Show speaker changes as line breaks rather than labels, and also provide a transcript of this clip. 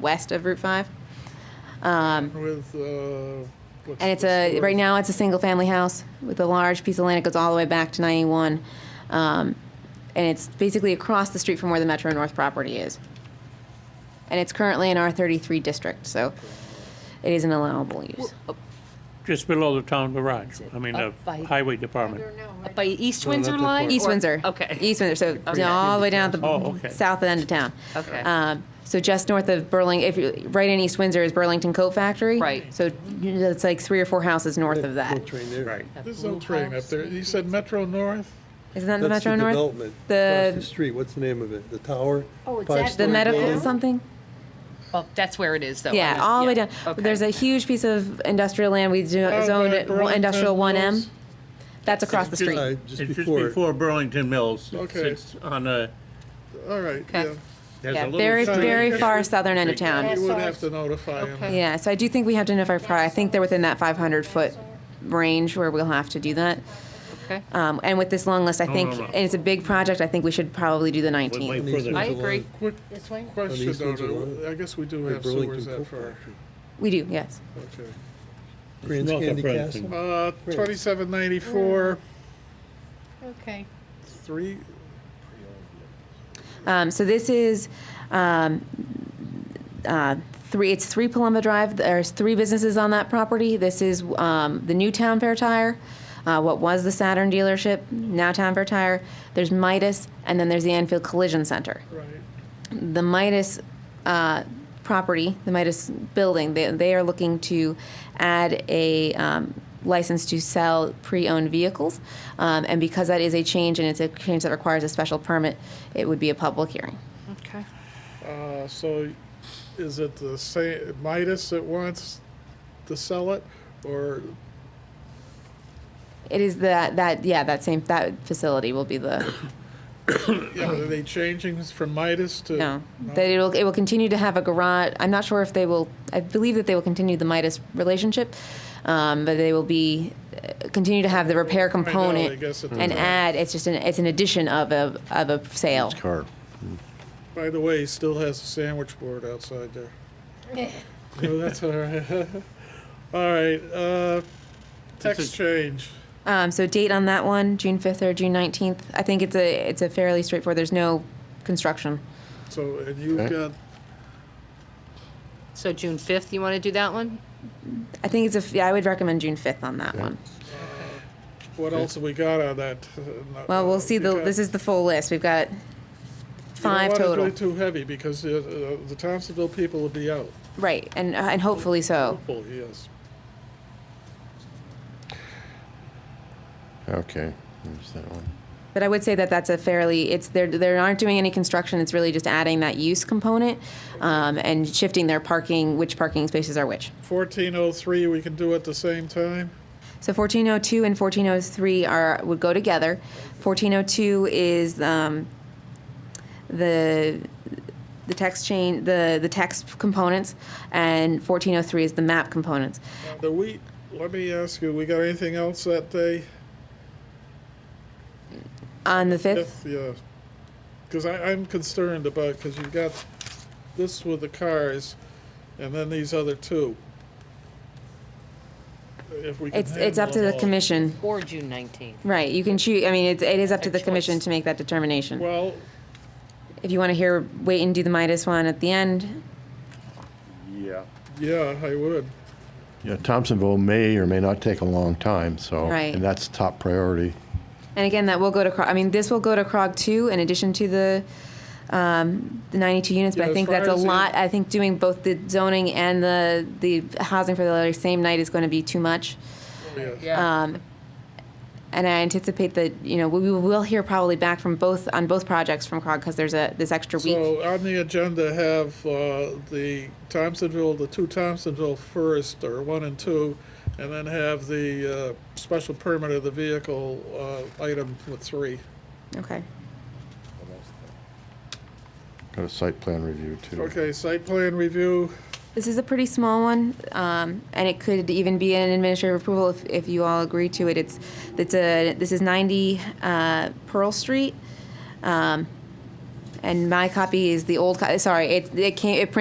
west of Route 5. Um,
with, uh. what's
and it's
the
a
story?
right now it's a single family house with a large piece of land. It goes all the way back to 91, um, and it's basically across the street from where the Metro North property is. And it's currently an R33 district, so it is an allowable use.
Just below the town garage, I mean, the
Up by-
highway department.
Up by East
No, not
Windsor
that
line?
far.
East
or-
Windsor.
Okay.
East Windsor, so
Okay.
all the way down at the
Oh, okay.
south end of town.
Okay.
Um, so just north of Burlington, if you, right in East Windsor is Burlington Coat Factory.
Right.
So it's like three or four houses north of
No
that.
train there.
Right.
There's no train up there. You said Metro North?
Isn't that the
That's
Metro
the
North?
development across the
The
street. What's the name of it? The tower?
Oh, it's
Five
that
the
story
Going
medical
building?
something.
Well, that's where it is, though. I
Yeah,
mean,
all the way down.
Oh, Okay.
There's a huge piece of industrial land. We do,
Oh,
zoned
the
it one- industrial
Burlington
1M. That's across the street.
Uh,
It's
Just
just
before,
before Burlington Mills. It's-
Okay.
It's on a,
All right, yeah.
Okay.
there's a
Yeah,
little.
very,
street
very
that
far
is-
southern end of town.
You would have to notify him.
Yeah, so I do think we have to notify prior. I think they're within that 500 foot range where we'll have to do that.
Okay.
Um, and with this long list, I
No,
think,
no, no.
and it's a big project, I think we should probably do the
Wait, wait
19th.
for the-
I agree.
Quick
This way?
question,
these
though,
ones are
do-
low.
I guess we do
the
have sewers
Burlington
that
Coal
far.
Factory.
We do, yes.
Okay.
Grants
north of
Candy
Burlington.
Castle?
Uh, twenty-seven ninety-four,
Okay.
three,
Um, so this is, um, uh, three, it's three Palumba Drive. There's three businesses on that property. This is, um, the new Town Fair Tire, uh, what was the Saturn dealership, now Town Fair Tire. There's Midas, and then there's the Anfield Collision Center.
right.
the Midas uh, property, the Midas building, they, they are looking to add a um, license to sell pre-owned vehicles. Um, and because that is a change and it's a change that requires a special permit, it would be a public hearing.
Okay.
Uh, so is it the same, Midas that wants to sell it? Or,
It is that, that, yeah, that same, that facility will be the,
yeah, but are they changing this from Midas to?
no. That it will, it will continue to have a garage. I'm not sure if they will, I believe that they will continue the Midas relationship. Um, but they will be, uh, continue to have the repair
Find out, I
component.
guess, at the
an
time.
ad. It's just an it's an addition of a of a sale.
car.
By the way, he still has a sandwich board outside there. No, that's all right. All right, uh, text change.
Um, so date on that one, June fifth or June nineteenth. I think it's a it's a fairly straightforward. There's no construction.
So, and you've
Okay.
got,
So June 5th, you want to do that one?
I think it's a f- yeah. I would recommend June fifth on that one.
what else have we got on that? Uh,
Well, we'll see. The this is the full list. We've got five total.
It's really too heavy because uh, uh, the Thompsonville people will be out.
Right, and uh, and hopefully so.
Hopefully, yes.
Okay, there's that one.
But I would say that that's a fairly it's they're they aren't doing any construction. It's really just adding that use component, um, and shifting their parking, which parking spaces are which.
Fourteen oh three, we can do at the same time?
So 1402 and 1403 are would go together. 1402 is um, the the text chain, the the text components, and 1403 is the map components.
Do we, let me ask you, we got anything else that day?
On the fifth,
If, yeah, because I'm concerned about, because you've got this with the cars and then these other two. If we can
it's it's up to
handle
the
them all.
commission,
Or June 19th?
right? You can choose. I mean, it's, it is up to
A
the commission
choice.
to make that determination.
Well,
If you want to hear, wait and do the Midas one at the end.
Yeah.
yeah, I would.
Yeah, Thompsonville may or may not take a long time, so.
Right.
And that's top priority.
And again, that will go to. Cro- I mean, this will go to Crog too, in addition to the, um, the 92 units. But
Yeah,
I
as
think
far
that's a
as the-
lot. I think doing both the zoning and the the housing for the very same night is going to be too much.
Yeah.
Yeah.
Um, and I anticipate that you know we, we will hear probably back from both on both projects from Crog because there's a this extra week.
So on the agenda have uh, the Thompsonville, the two Thompsonville first, or one and two, and then have the uh, special permit of the vehicle uh, item with three.
okay.
Got a site plan review too.
Okay, site plan review,
This is a pretty small one, um, and it could even be an administrative approval if, if you all agree to it. It's, it's a, this is 90 uh, Pearl Street, um, and my copy is the old, co- sorry, it, it came, it printed